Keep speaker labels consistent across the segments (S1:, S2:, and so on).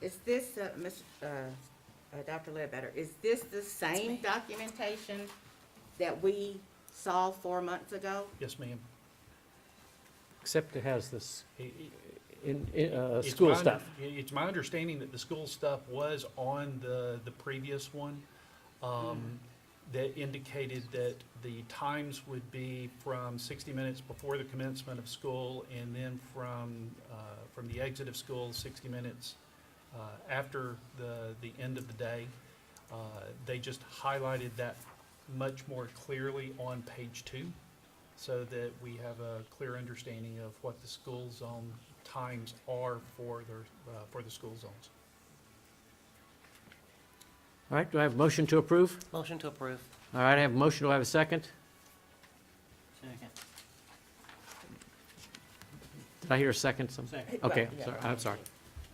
S1: Is this, uh, Ms., uh, uh, Dr. Ledbetter, is this the same documentation that we saw four months ago?
S2: Yes, ma'am.
S3: Except it has this,
S2: I- i-
S3: in, in, uh,
S2: it's
S3: school
S2: my under-
S3: stuff.
S2: i- It's my understanding that the school stuff was on the, the previous one, um, that indicated that the times would be from sixty minutes before the commencement of school, and then from, uh, from the exit of school, sixty minutes, uh, after the, the end of the day. Uh, they just highlighted that much more clearly on page two, so that we have a clear understanding of what the school zone times are for their, uh, for the school zones.
S3: All right, do I have a motion to approve?
S4: Motion to approve.
S3: All right, I have a motion, do I have a second?
S4: Second.
S3: Did I hear a second? Some-
S4: Second.
S3: Okay,
S1: Yeah.
S3: sorry, I'm sorry.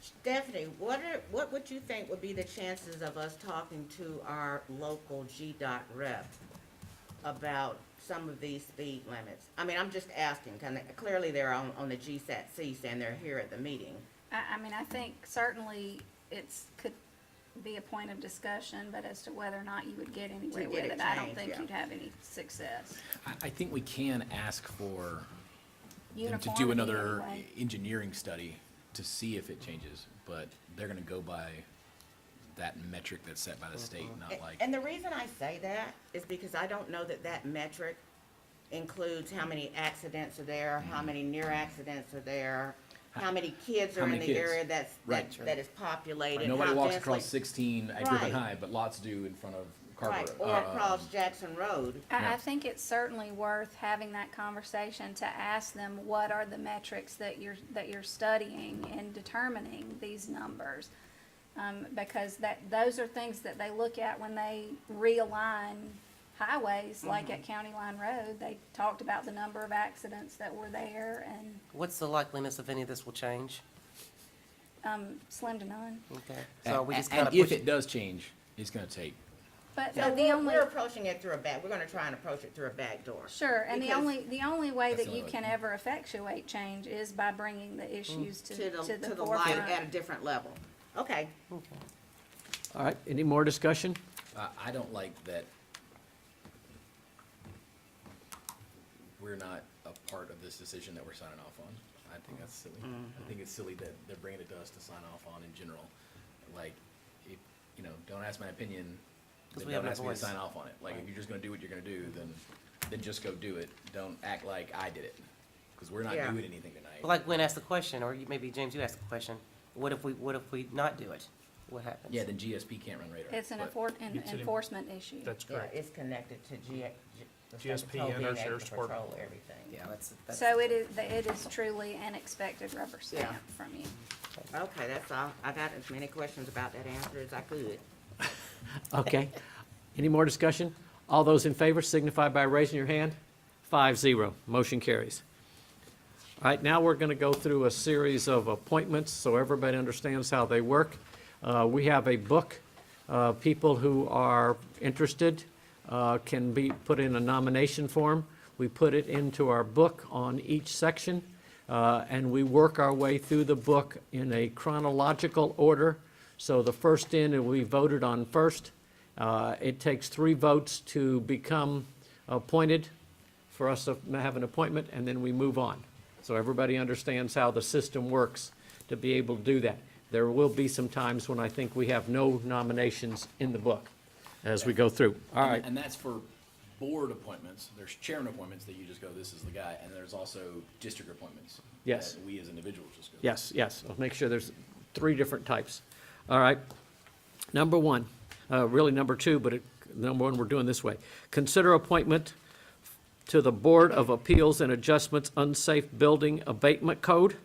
S1: Stephanie, what are, what would you think would be the chances of us talking to our local GDOT rep about some of these speed limits? I mean, I'm just asking, kind of, clearly they're on, on the GSATC saying they're here at the meeting.
S5: I, I mean, I think certainly it's, could be a point of discussion, but as to whether or not you would get anywhere
S1: get
S5: with
S1: it
S5: it, I don't
S1: changed,
S5: think
S1: yeah.
S5: you'd have any success.
S6: I, I think we can ask for them to do
S5: Uniformity
S6: another
S5: anyway.
S6: engineering study to see if it changes, but they're gonna go by that metric that's set by the state, not
S1: A-
S6: like,
S1: Uh-huh. And the reason I say that is because I don't know that that metric includes how many accidents are there, how many near accidents are there, how many kids
S6: How
S1: are in
S6: many
S1: the
S6: kids?
S1: area that's,
S6: Right.
S1: that, that is populated.
S6: nobody
S1: how
S6: walks
S1: densely-
S6: across sixteen at Griffin
S1: Right.
S6: High, but lots do in front of
S1: Right,
S6: Carver.
S1: or
S6: uh,
S1: across Jackson Road.
S5: I, I
S6: Yeah.
S5: think it's certainly worth having that conversation to ask them, what are the metrics that you're, that you're studying and determining these numbers? Um, because that, those are things that they look at when they realign highways, like
S1: Mm-hmm.
S5: at County Line Road, they talked about the number of accidents that were there and,
S4: What's the likeliness if any of this will change?
S5: um, slim to none.
S4: Okay, so we
S6: and-
S4: just kind of
S6: And if
S4: push
S6: it
S4: it.
S6: does change, it's gonna take,
S5: But
S1: So
S5: but the
S1: we're,
S5: only,
S1: we're approaching it through a back, we're gonna try and approach it through a back door.
S5: sure, and the
S1: because-
S5: only, the only way
S6: That's
S5: that
S6: the
S5: you
S6: only way.
S5: can ever effectuate change is by bringing the issues to,
S1: Mm. To the, to the light
S5: forefront.
S1: at a different level. Okay,
S3: All right, any more discussion?
S6: I, I don't like that we're not a part of this decision that we're signing off on. I think that's silly.
S4: Mm-hmm.
S6: I think it's silly that they're bringing it to us to sign off on in general. Like, if, you know, don't ask my opinion,
S4: 'Cause
S6: then
S4: we have
S6: don't
S4: no
S6: ask me to
S4: voice.
S6: sign off on it. Like, if you're just gonna do what you're gonna do, then, then just go do it. Don't act like I did it, because we're not
S1: Yeah.
S6: doing anything tonight.
S4: Like Gwen asked the question, or you- maybe James, you asked the question, what if we, what if we not do it? What happens?
S6: Yeah, then GSP can't run radar.
S5: It's an
S6: but-
S5: enfor- an
S2: It's an en-
S5: enforcement issue.
S2: That's
S1: yeah,
S2: correct.
S1: it's connected to G, G- the state
S2: GSP
S1: patrol
S2: and
S1: being
S2: our
S1: able to
S2: sheriff's department.
S1: Control everything.
S4: Yeah, that's, that's.
S5: So it is, it is truly an expected rubber stamp from you.
S1: Okay, that's all. I got as many questions about that answer as I could.
S3: Okay. Any more discussion? All those in favor signify by raising your hand. Five zero, motion carries. All right, now we're going to go through a series of appointments so everybody understands how they work. Uh, We have a book. Uh, People who are interested uh, can be, put in a nomination form. We put it into our book on each section, uh, and we work our way through the book in a chronological order. So the first in, it will be voted on first. Uh, It takes three votes to become appointed for us to have an appointment, and then we move on. So everybody understands how the system works to be able to do that. There will be some times when I think we have no nominations in the book as we go through. All
S6: And-
S3: right,
S6: And that's for board appointments. There's chairman appointments that you just go, this is the guy, and there's also district appointments.
S3: Yes.
S6: that We as individuals just go.
S3: yes, yes, I'll make sure there's three different types. All right, number one, uh, really number two, but it, number one, we're doing this way. Consider appointment to the Board of Appeals and Adjustments Unsafe Building Abatement Code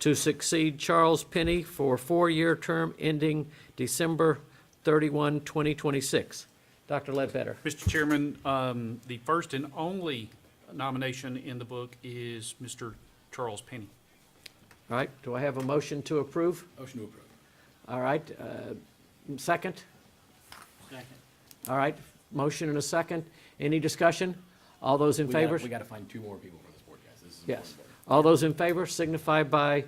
S3: to succeed Charles Penny for a four-year term ending December 31, 2026. Dr. Ledbetter.
S2: Mr. Chairman, um, the first and only nomination in the book is Mr. Charles Penny.
S3: All right, do I have a motion to approve?
S6: Motion to approve.
S3: All right, uh, second? Second. All right, motion and a second. Any discussion? All those in
S6: We gotta-
S3: favor?
S6: We gotta find two more people for this board, guys. This is. an
S3: Yes.
S6: important board.
S3: All those in favor signify by